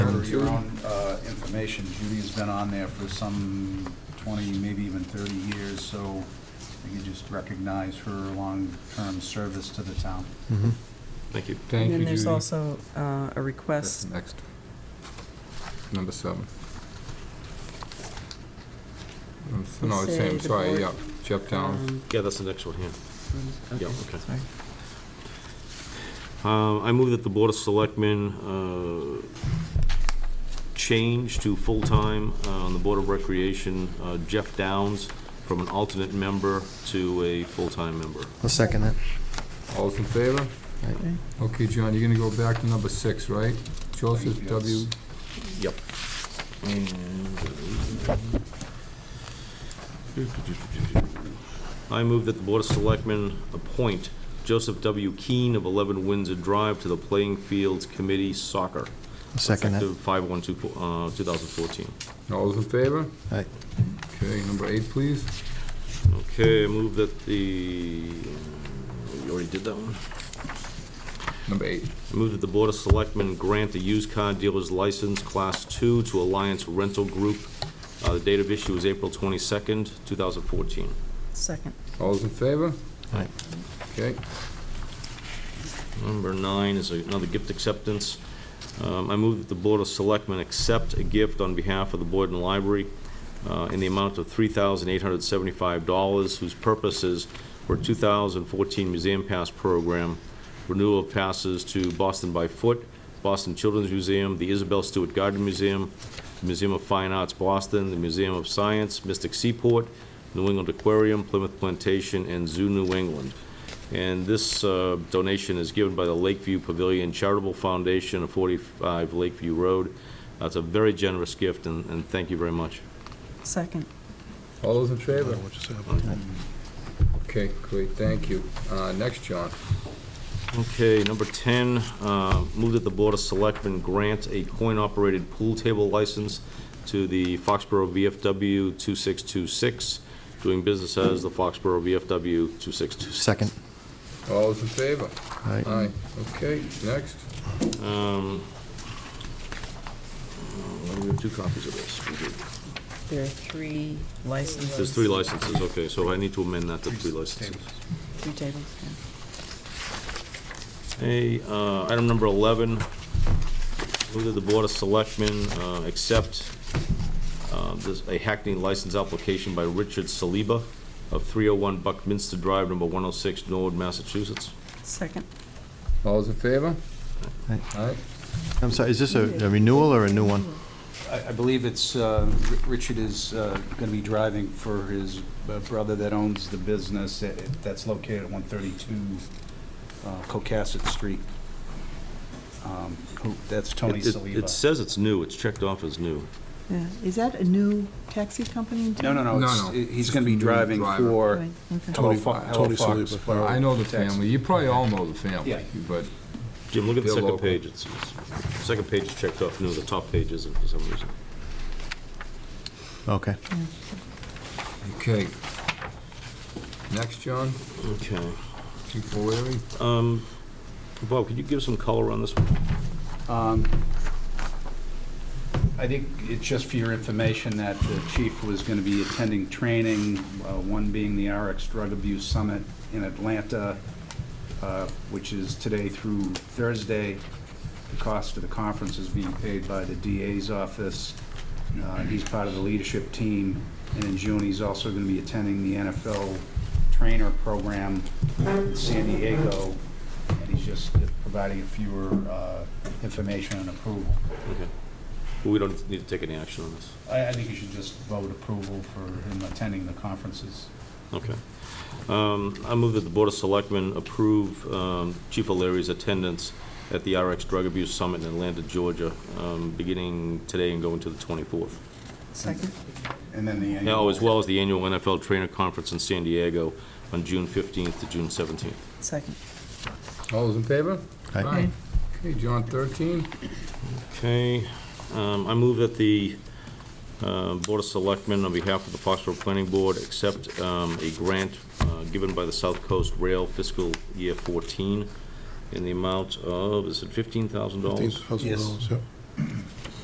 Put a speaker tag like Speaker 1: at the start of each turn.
Speaker 1: your own uh, information, Judy's been on there for some 20, maybe even 30 years, so you just recognize her long-term service to the town.
Speaker 2: Thank you.
Speaker 3: Thank
Speaker 4: And
Speaker 3: you,
Speaker 4: then there's
Speaker 3: Judy.
Speaker 4: also uh, a
Speaker 3: That's
Speaker 4: request
Speaker 3: next. Number seven. Um,
Speaker 4: To
Speaker 3: No, it's
Speaker 4: say
Speaker 3: same,
Speaker 4: the
Speaker 3: sorry,
Speaker 4: board-
Speaker 3: yeah, Jeff Downs.
Speaker 4: um,
Speaker 2: Yeah, that's the next one here.
Speaker 4: from-
Speaker 2: Yeah, okay.
Speaker 4: sorry.
Speaker 2: Uh, I move that the Board of Selectmen uh, change to full-time uh, on the Board of Recreation uh, Jeff Downs from an alternate member to a full-time member.
Speaker 5: I'll second that.
Speaker 3: All's in favor?
Speaker 4: Okay.
Speaker 3: Okay, John, you're gonna go back to number six, right? Joseph
Speaker 1: Yes.
Speaker 3: W.
Speaker 2: Yep. I move that the Board of Selectmen appoint Joseph W. Keane of 11 Windsor Drive to the Playing Fields Committee Soccer.
Speaker 5: I'll second that.
Speaker 2: Effective 5/1/24, uh, 2014.
Speaker 3: All's in favor?
Speaker 5: Aye.
Speaker 3: Okay, number eight, please.
Speaker 2: Okay, I move that the, you already did that one?
Speaker 3: Number eight.
Speaker 2: I move that the Board of Selectmen grant the used car dealer's license, Class 2, to Alliance Rental Group. Uh, The date of issue is April 22nd, 2014.
Speaker 4: Second.
Speaker 3: All's in favor?
Speaker 5: Aye.
Speaker 3: Okay,
Speaker 2: Number nine is another gift acceptance. Um, I move that the Board of Selectmen accept a gift on behalf of the Boyden Library uh, in the amount of $3,875, whose purposes were 2014 Museum Pass Program, renewal of passes to Boston by Foot, Boston Children's Museum, the Isabel Stewart Gardner Museum, the Museum of Fine Arts Boston, the Museum of Science, Mystic Seaport, New England Aquarium, Plymouth Plantation, and Zoo New England. And this uh, donation is given by the Lakeview Pavilion Charitable Foundation of 45 Lakeview Road. That's a very generous gift, and and thank you very much.
Speaker 4: Second.
Speaker 3: all those in favor? Okay, great, thank you. Uh, next, John.
Speaker 2: Okay, number 10, uh, move that the Board of Selectmen grant a coin-operated pool table license to the Foxborough VFW 2626, doing business as the Foxborough VFW 2626.
Speaker 5: Second.
Speaker 3: All those in favor?
Speaker 5: Aye.
Speaker 3: Aye. Okay, next.
Speaker 2: Um, uh, We have two copies of this. We do.
Speaker 4: There are three licenses.
Speaker 2: There's three licenses, okay, so I need to amend that to three licenses.
Speaker 4: Three tables, yeah.
Speaker 2: Hey, uh, item number 11, move that the Board of Selectmen uh, accept uh, this- a Hackney license application by Richard Saliba of 301 Buckminster Drive, number 106, Norwood, Massachusetts.
Speaker 4: Second.
Speaker 3: All those in favor?
Speaker 5: Aye.
Speaker 3: Aye.
Speaker 5: I'm sorry, is this a a renewal or a new one?
Speaker 1: I I believe it's, uh, R- Richard is going to be driving for his uh, brother that owns the business that- that's located at 132 uh, Cocasset Street. Um, who- That's Tony
Speaker 2: It- it- It
Speaker 1: Saliba.
Speaker 2: says it's new, it's checked off as new.
Speaker 4: Yeah, is that a new taxi company in
Speaker 1: No,
Speaker 4: town?
Speaker 1: no, no,
Speaker 3: No,
Speaker 1: it's-
Speaker 3: no.
Speaker 1: he's going to be
Speaker 3: Just a
Speaker 1: driving
Speaker 3: driver.
Speaker 1: for
Speaker 4: Right, okay.
Speaker 1: Tony
Speaker 6: Tony Fo- Tony
Speaker 1: Fox.
Speaker 6: Saliba.
Speaker 3: I know the
Speaker 1: Text.
Speaker 3: family, you probably all know the family,
Speaker 1: Yeah.
Speaker 3: but
Speaker 2: Jim, look at the
Speaker 3: They're
Speaker 2: second
Speaker 3: local.
Speaker 2: page, it's, it's- the second page is checked off new, the top page isn't for some reason.
Speaker 5: Okay.
Speaker 3: Okay. Next, John,
Speaker 2: Okay.
Speaker 3: Chief O'Leary.
Speaker 2: Um, Bob, could you give some color on this one?
Speaker 1: Um, I think it's just for your information that the chief was going to be attending training, uh, one being the RX Drug Abuse Summit in Atlanta, uh, which is today through Thursday. The cost of the conference is being paid by the DA's office. Uh, He's part of the leadership team. And in June, he's also going to be attending the NFL Trainer Program in San Diego. And he's just providing a fewer uh, information and approval.
Speaker 2: Okay. We don't need to take any action on this.
Speaker 1: I, I think you should just vote approval for him attending the conferences.
Speaker 2: Okay. Um, I move that the Board of Selectmen approve um, Chief O'Leary's attendance at the RX Drug Abuse Summit in Atlanta, Georgia, um, beginning today and going to the 24th.
Speaker 4: Second.
Speaker 1: And then the annual.
Speaker 2: Now, as well as the annual NFL Trainer Conference in San Diego on June 15th to June 17th.
Speaker 4: Second.
Speaker 3: All those in favor?
Speaker 5: Aye.
Speaker 3: Okay, John, 13.
Speaker 2: Okay, um, I move that the uh, Board of Selectmen, on behalf of the Foxborough Planning Board, accept um, a grant uh, given by the South Coast Rail fiscal year 14 in the amount of, is it $15,000?
Speaker 6: Fifteen thousand dollars, yeah.